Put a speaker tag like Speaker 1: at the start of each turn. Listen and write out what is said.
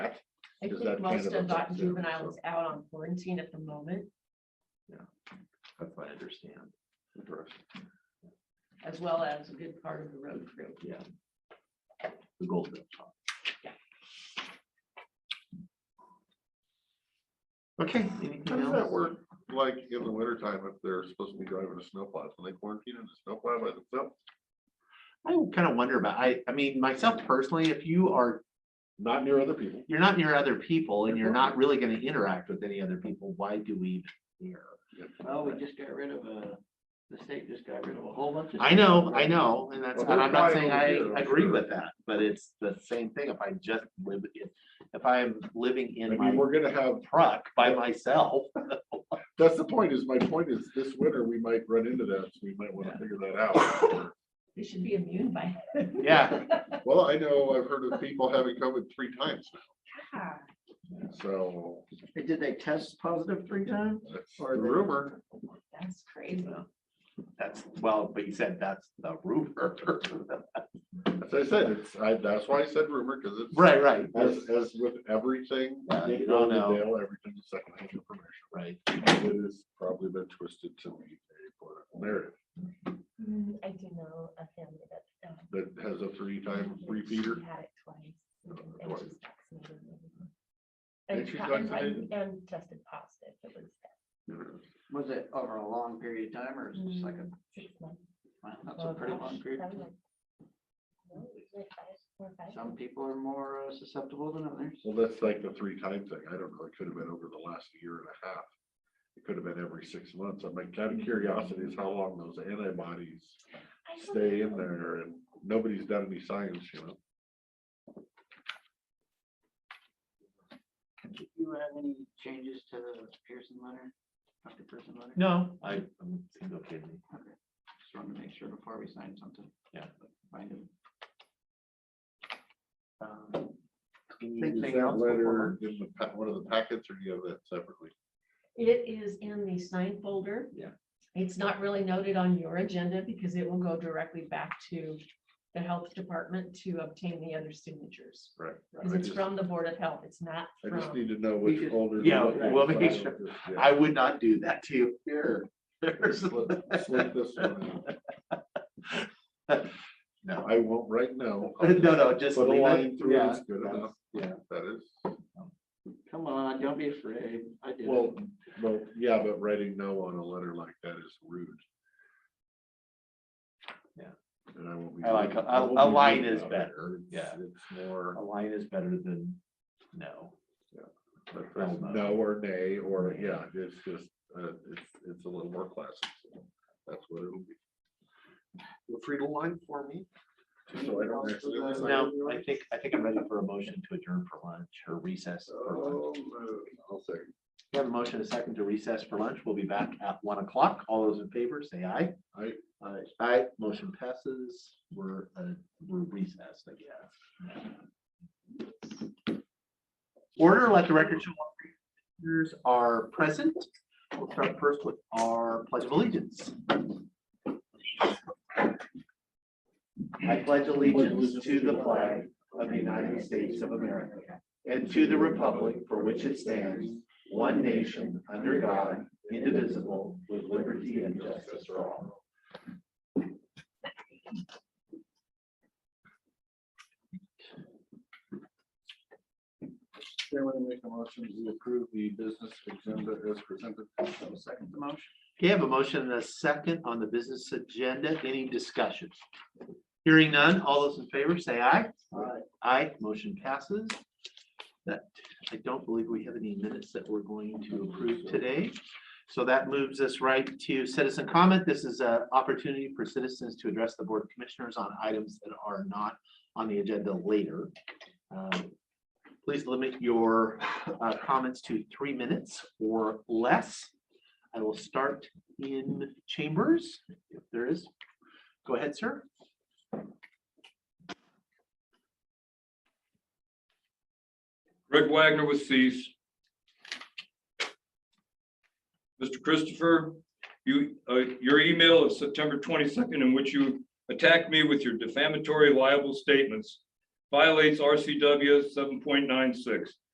Speaker 1: I
Speaker 2: Is
Speaker 1: think
Speaker 2: that
Speaker 1: most
Speaker 2: Canada?
Speaker 1: Dundalk juvenile is out on quarantine at the moment,
Speaker 2: That's what I understand.
Speaker 1: as well as a good part of the road crew.
Speaker 2: The gold. Okay.
Speaker 3: How does that work, like, in the winter time, if they're supposed to be driving a snowplow, can they quarantine in a snowplow by themselves?
Speaker 2: I kind of wonder about, I, I mean, myself personally, if you are,
Speaker 3: Not near other people.
Speaker 2: you're not near other people and you're not really gonna interact with any other people, why do we even care?
Speaker 4: Well, we just got rid of a, the state just got rid of a whole bunch of.
Speaker 2: I know, I know, and that's,
Speaker 3: Well,
Speaker 2: and I'm not
Speaker 3: they're
Speaker 2: saying
Speaker 3: probably
Speaker 2: I
Speaker 3: over here,
Speaker 2: agree
Speaker 3: sure.
Speaker 2: with that, but it's the same thing if I just live, in- if I'm living
Speaker 3: I
Speaker 2: in
Speaker 3: mean,
Speaker 2: my
Speaker 3: we're gonna have,
Speaker 2: truck by myself.
Speaker 3: that's the point, is my point is, this winter, we might run into that, so we might wanna figure that out.
Speaker 1: They should be immune by.
Speaker 2: Yeah,
Speaker 3: Well, I know, I've heard of people having COVID three times
Speaker 1: now.
Speaker 3: now, so,
Speaker 4: Did they test positive three times?
Speaker 3: that's the
Speaker 4: Or they-
Speaker 3: rumor,
Speaker 1: That's crazy.
Speaker 2: that's, well, but you said that's the roofer.
Speaker 3: as I said, it's, I, that's why I said rumor, cause it's.
Speaker 2: Right, Oh, right,
Speaker 3: As, as with everything.
Speaker 2: Yeah, you
Speaker 3: Nick
Speaker 2: Uh, don't
Speaker 3: Rovendale,
Speaker 2: know.
Speaker 3: Everything's secondhand information.
Speaker 2: right.
Speaker 3: It has probably been twisted to meet a political narrative
Speaker 1: Mm, I do know a family that's. um,
Speaker 3: that has a three-time repeater.
Speaker 1: she Had it twice. and- and
Speaker 3: Twice. And
Speaker 1: she's vaccinated and- And
Speaker 3: she's
Speaker 1: po- and-
Speaker 3: vaccinated?
Speaker 1: And tested positive. It was
Speaker 4: Was it over a long period of time or is it just like a,
Speaker 1: mm, six months.
Speaker 4: wow, that's a
Speaker 1: Oh,
Speaker 4: pretty
Speaker 1: gosh,
Speaker 4: long period. of
Speaker 1: that was
Speaker 4: time.
Speaker 1: like- no, it was like five, four or five
Speaker 4: Some
Speaker 1: months.
Speaker 4: people are more uh, susceptible than others.
Speaker 3: Well, that's like the three-time thing. I don't know. It could have been over the last year and a half. It could have been every six months. I'm like, kind of curiosity is how long those antibodies
Speaker 1: I don't
Speaker 3: stay in
Speaker 1: know.
Speaker 3: there and nobody's done any science, you know?
Speaker 4: Do you have any changes to the Pearson letter? Dr. Pearson letter?
Speaker 2: No, I, I'm single kid.
Speaker 4: Just wanted to make sure before we sign something.
Speaker 2: Yeah.
Speaker 4: Find it. Um,
Speaker 2: Can you use
Speaker 3: Is
Speaker 2: that
Speaker 3: that
Speaker 2: letter?
Speaker 3: letter in the, pa- one of the packets or do you have that separately?
Speaker 1: It is in the sign folder.
Speaker 2: Yeah.
Speaker 1: It's not really noted on your agenda because it will go directly back to the health department to obtain the other signatures.
Speaker 3: Right.
Speaker 1: Because
Speaker 3: I
Speaker 1: it's
Speaker 3: just-
Speaker 1: from the Board of Health. It's not
Speaker 3: I just
Speaker 1: from,
Speaker 3: need to know
Speaker 4: We
Speaker 3: which
Speaker 4: just-
Speaker 3: folder.
Speaker 2: yeah, we'll make sure. I
Speaker 3: sure.
Speaker 2: would not do that to you. Here. There's-
Speaker 3: Slip this one out.
Speaker 2: No,
Speaker 3: I won't right now. I'll
Speaker 2: no, no, just
Speaker 3: Put a
Speaker 2: leave
Speaker 3: line
Speaker 2: it.
Speaker 3: through it,
Speaker 2: Yeah,
Speaker 3: it's good
Speaker 2: that's-
Speaker 3: enough.
Speaker 2: Yeah,
Speaker 3: That is,
Speaker 4: Come on, don't be afraid. I did it.
Speaker 3: well, well, yeah, but writing no on a letter like that is rude.
Speaker 2: Yeah.
Speaker 3: And I won't be.
Speaker 2: I like,
Speaker 3: rude-
Speaker 2: a,
Speaker 3: I won't
Speaker 2: a- a
Speaker 3: be rude
Speaker 2: line is
Speaker 3: about it.
Speaker 2: better. Yeah,
Speaker 3: It's more,
Speaker 2: a line is better than no.
Speaker 3: but
Speaker 2: Hell no.
Speaker 3: no or nay, or, yeah, it's just, uh, it's, it's a little more classic. so That's what it'll be. Feel free to line for me. So I don't accidentally sign
Speaker 2: No,
Speaker 3: yours.
Speaker 2: I think, I think I'm ready for a motion to adjourn for lunch or recess for lunch.
Speaker 3: So uh, moved. I'll say.
Speaker 2: We have a motion and a second to recess for lunch. We'll be back at one o'clock. All those in favor, say aye.
Speaker 3: Aye.
Speaker 2: Aye. Aye. Motion passes. We're, uh, we're recessed, I guess. Order, let the record show. all three Commissioners are present. We'll start first with our pledge of allegiance. I pledge allegiance to the flag of the United States of America and to the republic for which it stands, one nation, under God, indivisible, with liberty and justice for all.
Speaker 3: Chairman, I make a motion to approve the business agenda as presented. Second motion.
Speaker 2: Okay, I have a motion and a second on the business agenda. Any discussion? Hearing none, all those in favor say aye.
Speaker 4: Aye.
Speaker 2: Aye, motion passes. That, I don't believe we have any minutes that we're going to approve today. So that moves us right to citizen comment. This is an opportunity for citizens to address the board of commissioners on items that are not on the agenda later. Um, Please limit your uh, comments to three minutes or less. I will start in chambers, if there is. Go ahead, sir.
Speaker 5: Greg Wagner with Cease. Mr. Christopher, you, uh, your email of September twenty-second in which you attacked me with your defamatory liable statements violates RCW seven point nine six,